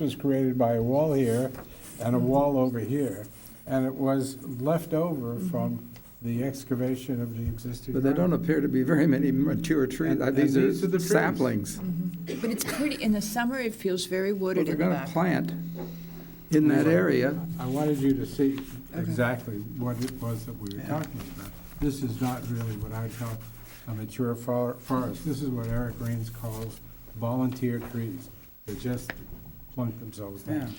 was created by a wall here and a wall over here, and it was left over from the excavation of the existing. But there don't ground. appear to be very many mature trees. And- Uh, and These these are the are trees. saplings. But it's pretty, in the summer, it feels very But wooded they're in the going to back. plant in that area. I wanted you to see exactly what it was that we were talking about. This is not really what I'd call a mature for- forest. This is what Eric Rains calls volunteer trees. They just plunk themselves Yeah. down.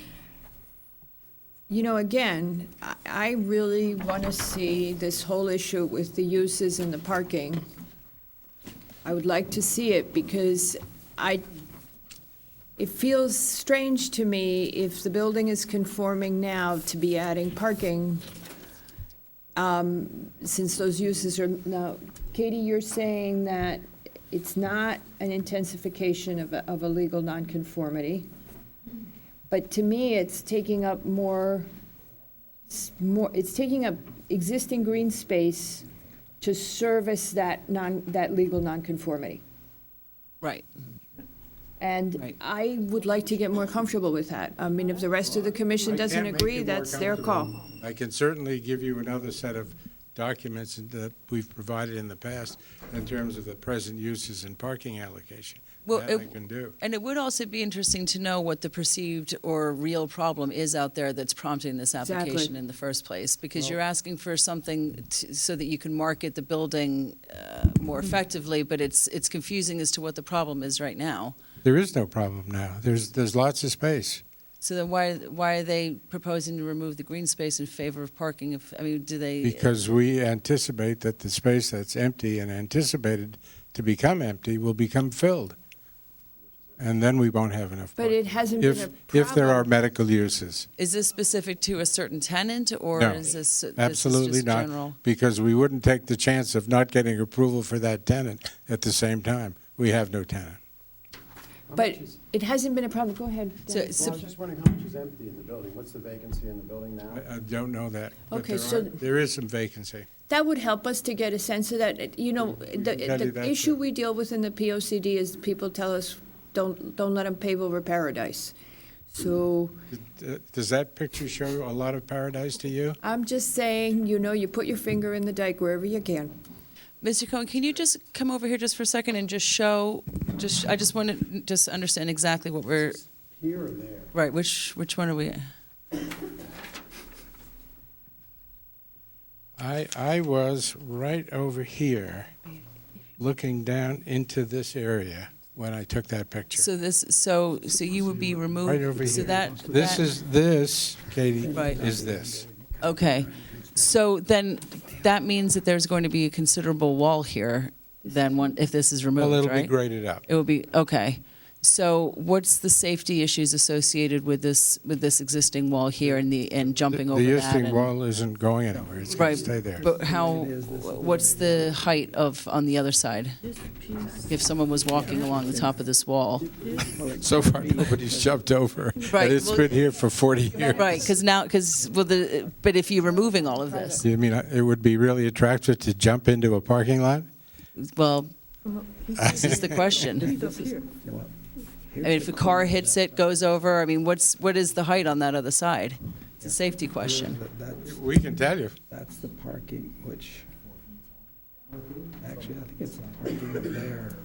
You know, again, I- I really want to see this whole issue with the uses and the parking. I would like to see it because I, it feels strange to me if the building is conforming now to be adding parking, um, since those uses are, now, Katie, you're saying that it's not an intensification of a, of a legal nonconformity. But to me, it's taking up more, s- more, it's taking up existing green space to service that non, that legal nonconformity. Right. And Right. I would like to get more comfortable with that. I mean, if the rest of the commission I can't doesn't make agree, you more that's their comfortable. call. I can certainly give you another set of documents that we've provided in the past in terms of the present uses and parking allocation. Well, That I it- can do. And it would also be interesting to know what the perceived or real problem is out there that's prompting this Exactly. application in the first place. Because you're asking for something to, so that you can market the building uh, more effectively, but it's, it's confusing as to what the problem is right now. There is no problem now. There's, there's lots of space. So then why, why are they proposing to remove the green space in favor of parking? If, I mean, do they? Because we anticipate that the space that's empty and anticipated to become empty will become filled. And then we won't have enough But parking. it hasn't been a If, problem. if there are medical uses. Is this specific to a certain tenant or No, is this, this is Absolutely just not, general? because we wouldn't take the chance of not getting approval for that tenant at the same time. We have no tenant. But it hasn't been a problem, go ahead. So, Dennis. Well, I was just wondering how much is empty in the building? What's the vacancy in the building now? I I don't know that. but Okay, there so- are- There is some vacancy. That would help us to get a sense of that, you know, the, can do the that, issue too. we deal with in the POCD is people tell us, don't, don't let them pave over paradise. So Uh, Does that picture show a lot of paradise to you? I'm just saying, you know, you put your finger in the dike wherever you can. Mr. Cohen, can you just come over here just for a second and just show, just, I just want to just understand exactly what we're, Here or there? right, which, which one are we? I, I was right over here, looking down into this area when I took that picture. So this, so, so you would be removed? Right over So here. that. This that- is, this, Katie, Right. is this. Okay. So then that means that there's going to be a considerable wall here then one, if this is Well, removed, it'll be right? graded up. It will be, okay. So what's the safety issues associated with this, with this existing wall here and the, and jumping The over that? existing and- wall isn't going anywhere, it's going Right, to stay there. But how, what's the height of, on the other side? If someone was walking along the top of this wall? So far, nobody's jumped over, Right, and it's well- been here for 40 years. Right, because now, because, well, the, but if you're removing all of this, You mean, uh, it would be really attractive to jump into a parking lot? well, this is the question. I mean, if a car hits it, goes over, I mean, what's, what is the height on that other side? It's a safety question. But That's, We can tell you. that's the parking, which, actually, I think it's the parking up there.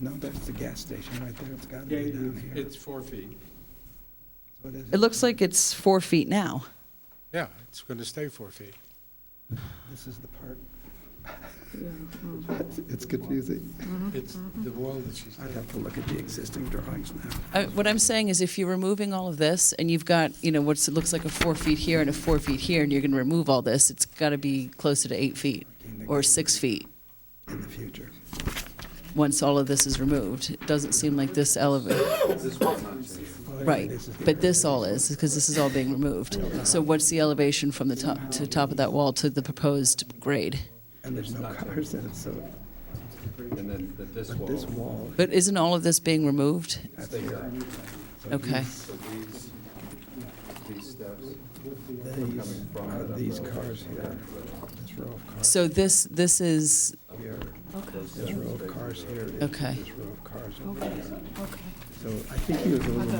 No, that's the gas station right there, it's gotta be down here. four feet. So is- It looks like it's four feet now. Yeah, it's going to stay four feet. This is the part. It's confusing. mm-hmm. It's the wall that she's... I'd have to look at the existing drawings now. I- What I'm saying is if you're removing all of this and you've got, you know, what's, it looks like a four feet here and a four feet here, and you're going to remove all this, it's got to be closer to eight feet or six feet In the future. once all of this is removed. It doesn't seem like this elevator. Right, but this all is, because this is all being removed. So what's the elevation from the top, to the top of that wall to the proposed grade? And there's no cars in it, so. And then this wall. But isn't all of this being removed? Okay. These are these cars here, this row of cars So this, this is, here, this row of cars here, and okay. this row of cars over here. So I think he was a little